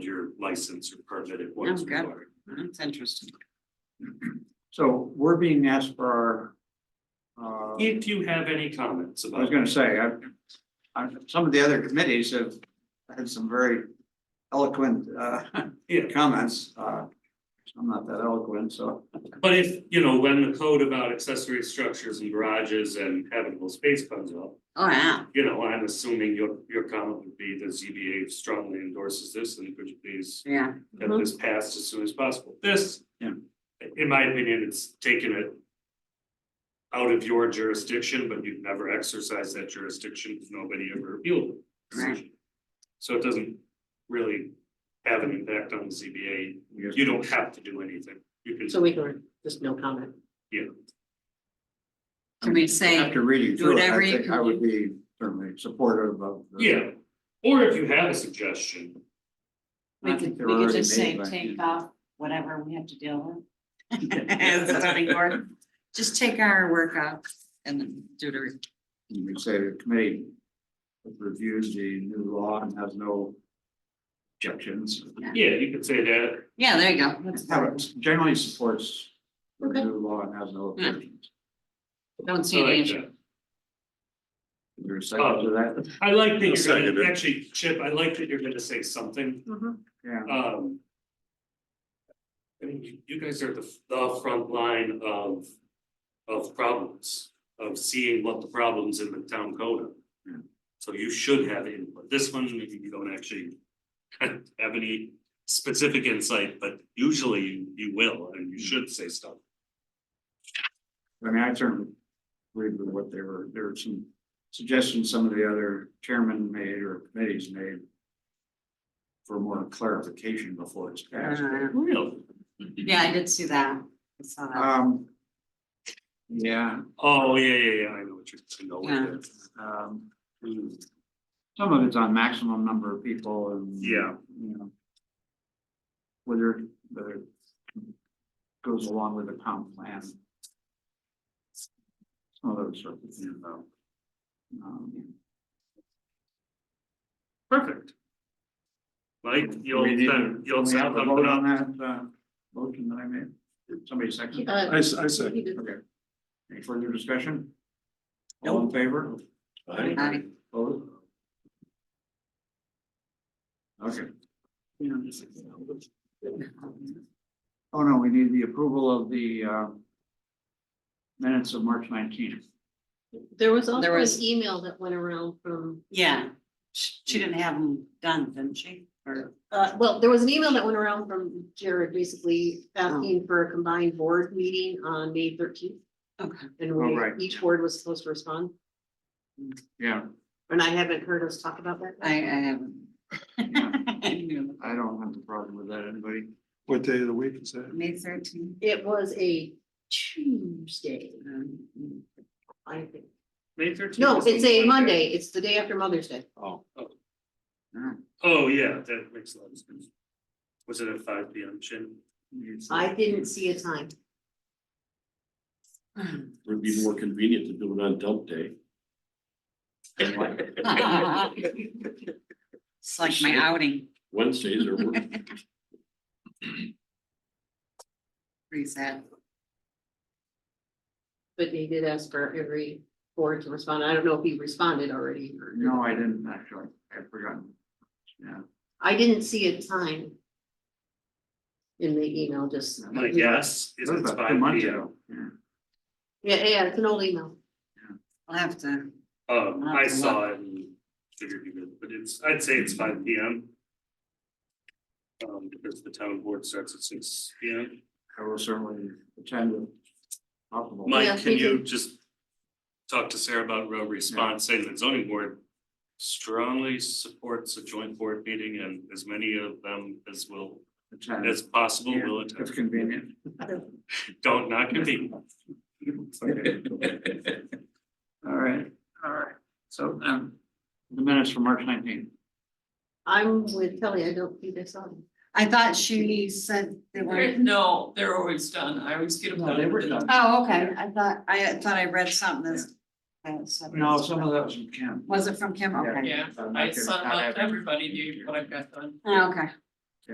your license or permit and what Oh, is got it. required. That's interesting. So we're being asked for our, uh, I If you have any comments was about, gonna say, I, I, some of the other committees have had some very eloquent, uh, yeah, comments, uh, I'm not that eloquent, so. but if, you know, when the code about accessory structures and garages and habitable space comes up. Oh, yeah. You know, I'm assuming your your comment would be the ZBA strongly endorses this and could you please Yeah. get Mm-hmm. this passed as soon as possible. This. Yeah. In my opinion, it's taken it. Out of your jurisdiction, but you've never exercised that jurisdiction, because nobody ever appealed the decision. So it doesn't really have an impact on the ZBA. You don't have to do anything. You can, So we can, just no comment. Can we say, After reading through it, I whatever you think I would be certainly supportive of. the- yeah, or if you have a suggestion, I We could, think they're we could already just say, made by hand. take off whatever we have to deal with. as the zoning board, just take our work out and then do the, re- You could say the committee reviews the new law and has no objections. yeah, you could say that. yeah, there you go. Have it- Generally supports the Okay. new law and has no Yeah. objections. Don't I see any like issue. that. Is there a second to that? I like that I'll you're second gonna, it. actually, Chip, I like that you're gonna say something, Yeah, um. I mean, you, you guys are the, the front line of, of problems, of seeing what the problems in the town code Yeah. are. So you should have input, this one, maybe you don't actually have any specific insight, but usually you- you will, and you should say stuff. I mean, I certainly agree with what they were, there were some suggestions some of the other chairmen made or committees made for more clarification before it's passed. Uh, Really? Yeah, I did see that. I saw that. Um, yeah, Oh, yeah, yeah, yeah, I know what you're, I know what Yeah. it is. um, Mm, Some of it's on maximum number of people and. Yeah. You know. Whether, whether it goes along with the comp plan. Some of those sort of things though. Um, Perfect. Mike, you'll, we need to- send- you'll we have send a them vote up. on that, uh, motion that I made, Did somebody second. Uh, I, s- I said. Okay. Any further discussion? All in favor? I- Aye. Opposed? Okay. Oh, no, we need the approval of the uh, minutes of March nineteenth. There was also There an was- email that went around from, Yeah, she she didn't have them done, didn't she? Or, uh, well, there was an email that went around from Jared basically asking for a combined board meeting on May thirteenth. okay, And Oh, we, right. each board was supposed to respond, Yeah, and I haven't heard us talk about that. I, I haven't. I knew. I don't have a problem with that, anybody? What day of the week is that? May thirteenth. It was a Tuesday, I think. May thirteenth. No, it's a Monday. It's the day after Mother's Day. Oh, Oh, yeah, that makes a lot of sense. Was it at five P M, Shin? I didn't see a time. it would be more convenient to do it on dump day. It's like my outing, Wednesdays are, work- pretty sad. But they did ask for every board to respond. I don't know if he responded already. or- No, I didn't actually, I've forgotten. Yeah, I didn't see a time. In the email, just. My guess is that was it's about five two months P M. ago. Yeah. Yeah, yeah, it's an old email. I'll have to, Um, Not I a saw it and figured you did, but it's, I'd say it's five P M. Um, because the town board starts at six P M. I will certainly attend if possible. Yeah, Mike, can we you did. just talk to Sarah about road response, saying that zoning board strongly supports a joint board meeting and as many of them as will, Attend, as possible Yeah, will If attend. convenient. Don't not convene. All right, all right, so, um, the minutes from March nineteenth. I'm with Kelly. I don't think I saw them. I thought she said they There- were. No, they're always done. I always get them No, they were done. done. Oh, okay, I thought, I thought I read something that's. uh, I said- No, some of that was from Kim. Was it from Kim? Okay, Yeah, I sent out everybody the- what I've got done. Ah, okay,